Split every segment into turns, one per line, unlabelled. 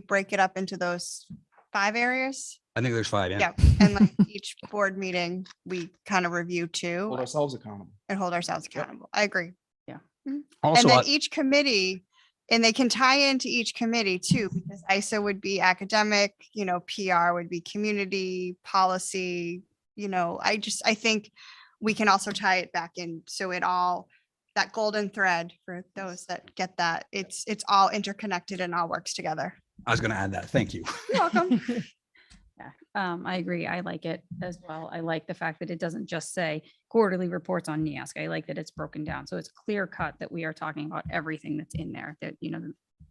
break it up into those five areas?
I think there's five, yeah.
Yeah, and like each board meeting, we kind of review two
hold ourselves accountable.
and hold ourselves accountable. I agree. And
Also,
then e
I-
each committee, and they can tie into each committee too, because ISO would be academic, you know, PR would be community, policy, you know, I just, I think we can also tie it back in, so it all, that golden thread for those that get that, it's, it's all interconnected and all works together.
I was gonna add that. Thank you.
You're welcome.
Yeah, Um, I agree. I like it as well. I like the fact that it doesn't just say quarterly reports on NIASC. I like that it's broken down. So it's clear cut that we are talking about everything that's in there that, you know,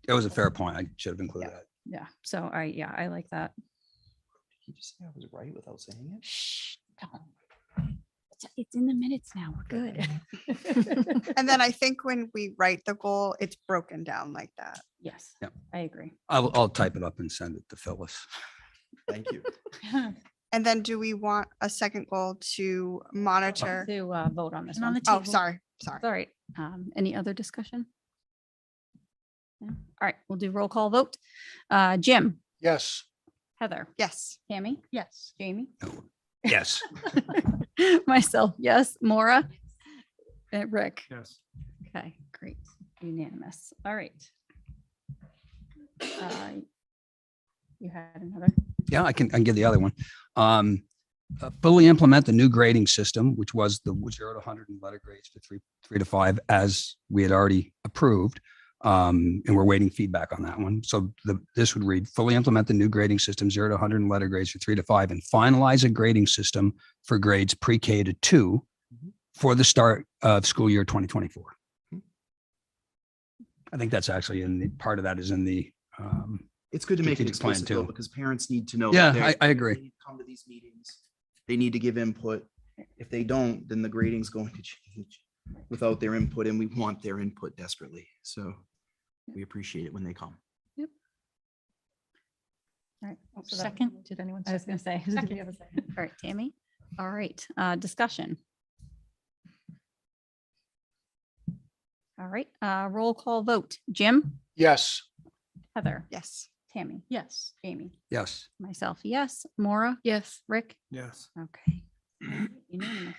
That was a fair point. I should have included that.
yeah. So I, yeah, I like that.
Did you just say I was right without saying it?
Shh, don't. It's- It's in the minutes now. We're good.
And then I think when we write the goal, it's broken down like that.
Yes,
Yep.
I agree.
I'll, I'll type it up and send it to Phyllis.
Thank you.
And then do we want a second goal to monitor?
To uh, vote on this
And on
one.
the
Oh,
table.
sorry, sorry.
All right. Um, any other discussion? No? All right, we'll do roll call vote. Uh, Jim,
Yes.
Heather,
Yes.
Tammy,
Yes.
Jamie.
No. Yes,
Myself, yes. Maura? And Rick?
Yes.
Okay, great. Unanimous. All right. Uh, You had another?
yeah, I can, I can give the other one. Um, uh, fully implement the new grading system, which was the zero to hundred and letter grades to three, three to five, as we had already approved. Um, and we're waiting feedback on that one. So the, this would read, fully implement the new grading system, zero to hundred and letter grades for three to five, and finalize a grading system for grades pre-K to two
Mhm.
for the start of school year twenty twenty-four.
Mhm.
I think that's actually in the, part of that is in the, um,
It's good to make it
Strategic plan
explicit though,
too.
because parents need to know. that
Yeah,
they're-
I- I agree.
they need to Come to these meetings. They need to give input. If they don't, then the grading's going to change without their input and we want their input desperately. So we appreciate it when they come.
All right. Oh, so that-
Second, Uh, did anyone?
I was going to say. did we have a second? All right, Tammy? All right, uh, discussion. All right, uh, roll call vote. Jim,
Yes.
Heather,
Yes.
Tammy,
Yes.
Jamie,
yes.
myself, yes. Maura,
Yes.
Rick?
Yes.
Okay. Unanimous.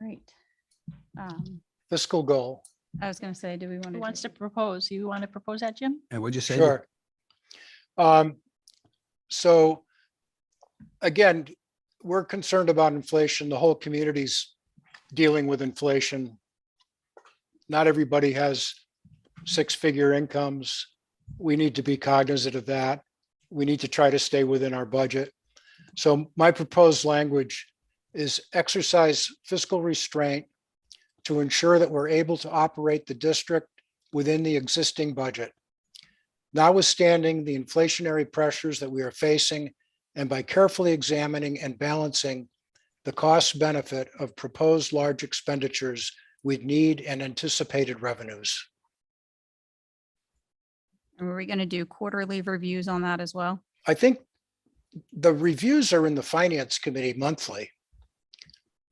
Great. Um,
Fiscal goal.
I was gonna say, do we want
Who
to?
wants to propose? You want to propose that, Jim?
And what'd you say? Nick?
Sure. Um, so again, we're concerned about inflation. The whole community's dealing with inflation. Not everybody has six-figure incomes. We need to be cognizant of that. We need to try to stay within our budget. So my proposed language is exercise fiscal restraint to ensure that we're able to operate the district within the existing budget notwithstanding the inflationary pressures that we are facing and by carefully examining and balancing the cost benefit of proposed large expenditures with need and anticipated revenues.
Were we gonna do quarterly reviews on that as well?
I think the reviews are in the finance committee monthly.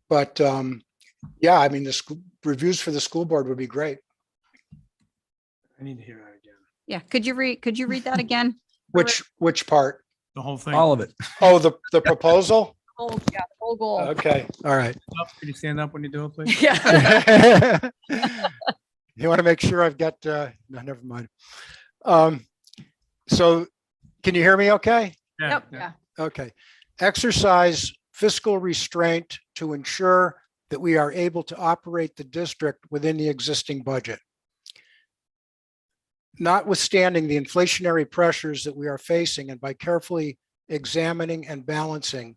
But um, yeah, I mean, the school reviews for the school board would be great.
I need to hear that again.
Yeah, could you read, could you read that again?
Which, which part?
The whole thing.
All of it.
Oh, the, the proposal?
Oh, yeah, whole goal.
Okay, all right.
Could you stand up when you do it, please?
Yeah.
you want to make sure I've got, uh, no, never mind. Um, so can you hear me okay?
Yep, yeah.
Okay. Exercise fiscal restraint to ensure that we are able to operate the district within the existing budget. Notwithstanding the inflationary pressures that we are facing and by carefully examining and balancing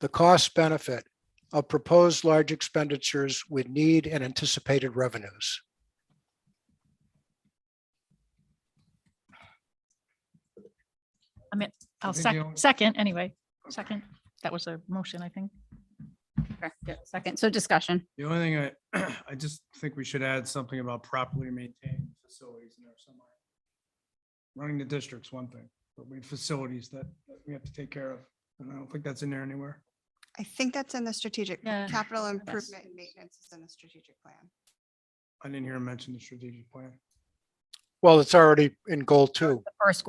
the cost benefit of proposed large expenditures with need and anticipated revenues.
I mean, I'll
think the
second,
only-
second, anyway, second. That was a motion, I think.
Correct, yeah, Second, so discussion.
The only thing I, I just think we should add something about properly maintained facilities in there somewhere. Running the district's one thing, but we have facilities that that we have to take care of. And I don't think that's in there anywhere.
I think that's in the strategic,
Yeah.
capital improvement and maintenance is in the strategic plan.
I didn't hear him mention the strategic plan.
Well, it's already in goal two.
The first